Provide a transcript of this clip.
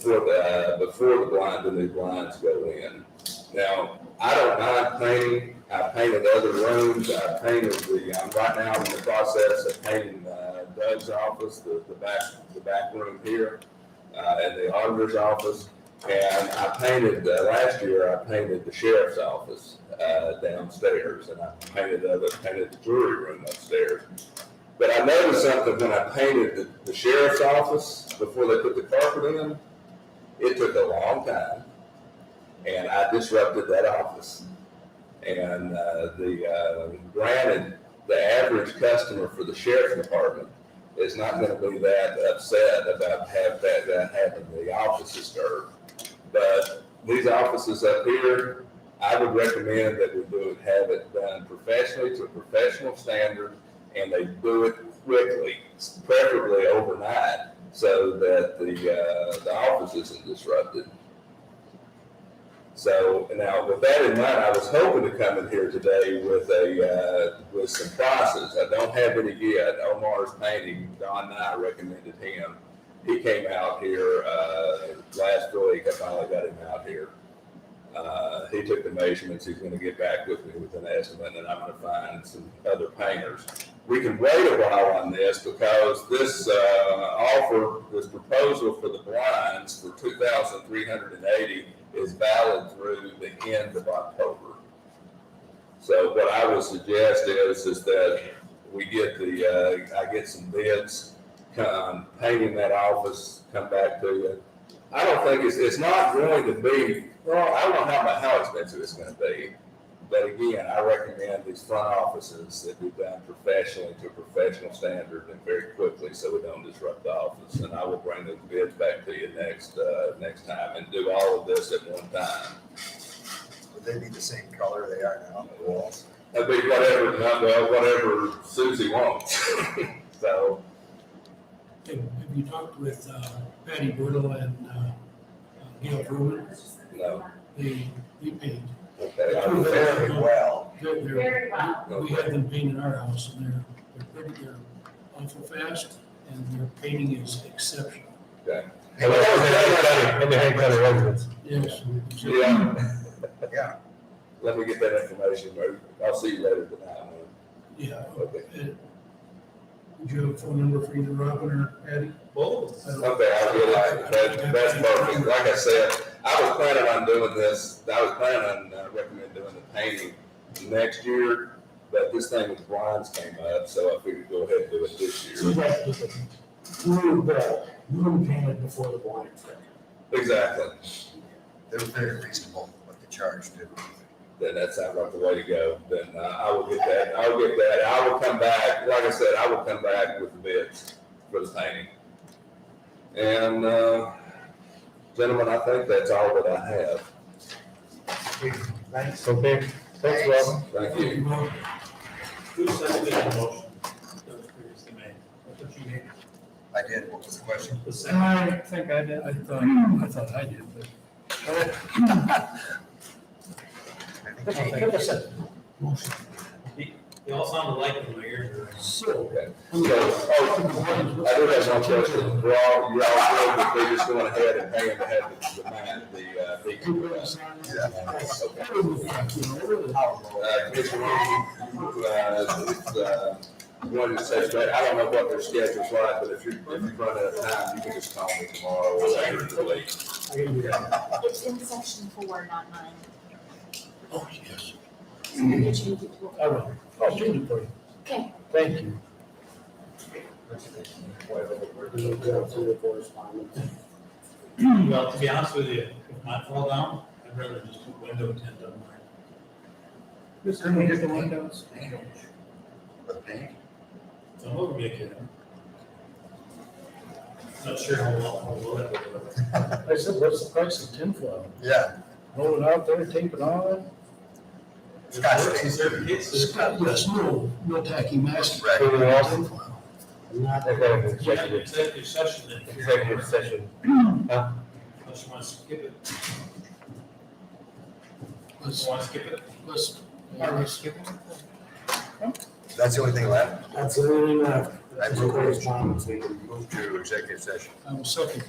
for the, before the blind, the new blinds go in. Now, I don't mind painting, I painted other rooms, I painted the, I'm right now in the process of painting uh, Doug's office, the, the back, the back room here, uh, and the auditor's office. And I painted, uh, last year, I painted the sheriff's office, uh, downstairs, and I painted other, painted the jury room upstairs. But I noticed something when I painted the, the sheriff's office before they put the carpet in. It took a long time, and I disrupted that office. And uh, the uh, granted, the average customer for the sheriff's department is not going to be that upset about have that, that having the office disturbed. But these offices up here, I would recommend that we do it, have it done professionally to a professional standard and they do it quickly, preferably overnight, so that the, uh, the office isn't disrupted. So now with that in mind, I was hoping to come in here today with a, uh, with some prices. I don't have any yet. Omar's painting, Don Nye recommended him. He came out here, uh, last week. I finally got him out here. Uh, he took the measurements. He's gonna get back with me with an estimate and I'm gonna find some other painters. We can wait a while on this because this, uh, offer, this proposal for the blinds for two thousand three hundred and eighty is valid through the end of October. So what I would suggest is, is that we get the, uh, I get some bids, come, painting that office, come back to you. I don't think it's, it's not going to be, well, I don't know how, mu- how expensive it's gonna be. But again, I recommend these front offices that be done professionally to a professional standard and very quickly so we don't disrupt the office. And I will bring the bids back to you next, uh, next time and do all of this at one time. Would they be the same color they are now on the walls? That'd be whatever, well, whatever Susie wants. So, Have have you talked with uh, Patty Brutal and uh, Gail Bruin? no, They, they paid. okay, I They're would say- Very well. They're- they're- Very well. We had them paint in our house and they're, they're pretty, they're awful fast and their painting is exceptional. And they hang County, and they hang County residents. Yes. so- yeah, Yeah, let me get that information, or I'll see you later tonight, man. Yeah. Okay, uh, Do you have a phone number for either Robin or Patty? Both. Okay, I realize, that, that's perfect, like I said, I was planning on doing this, I was planning on, uh, recommend doing the painting next year, but this thing with blinds came up, so I figured go ahead and do it this So you year. guys did the room, the room payment before the blind. Exactly, they're very reasonable what they charge too. then that sounds like the way to go, then uh, I will get that, I will get that, I will come back, like I said, I will come back with the bids for the painting. And, uh, gentlemen, I think that's all that I have, Thanks. Okay, thanks, Robin. thank you. Who seconded the motion that was previously made? That's what you made. I did, what was the question? The second. I think I did. I thought, I thought I did, but. I think Okay, Jane- give us a motion. They all sounded alike in my ears. So, Okay. So, oh, I do have one question. We're all, you're all good with they just going ahead and paying to have the, the man, the, uh, you the. guys on that? uh, okay. I would, you know, I really- Uh, Commissioner Long, uh, it's, uh, wanted to say, but I don't know what their schedule's like, but if you, if you run out of time, you can just call me tomorrow or later in the week. It's in section four, not nine. Oh, yes. So you can change it to- I will. I'll change it for you. Okay. Thank you. Well, to be honest with you, if mine fall down, I'd rather just put window tint on mine. Just remove the windows. The paint? So I'm over making it. Not sure how well, how well that will go. I said, what's the price of tinfoil? Yeah, Roll it out there, tape it on? Scotch It works in certain cases. Scott, yes, no, no tacky mask. right. Anything else? Tinfoil. They're going to You have an executive, executive session then. executive session. Unless you want to skip it. Let's, You want to skip it? let's. That's the only thing left. That's the only left. I move, move to executive session. I'm second.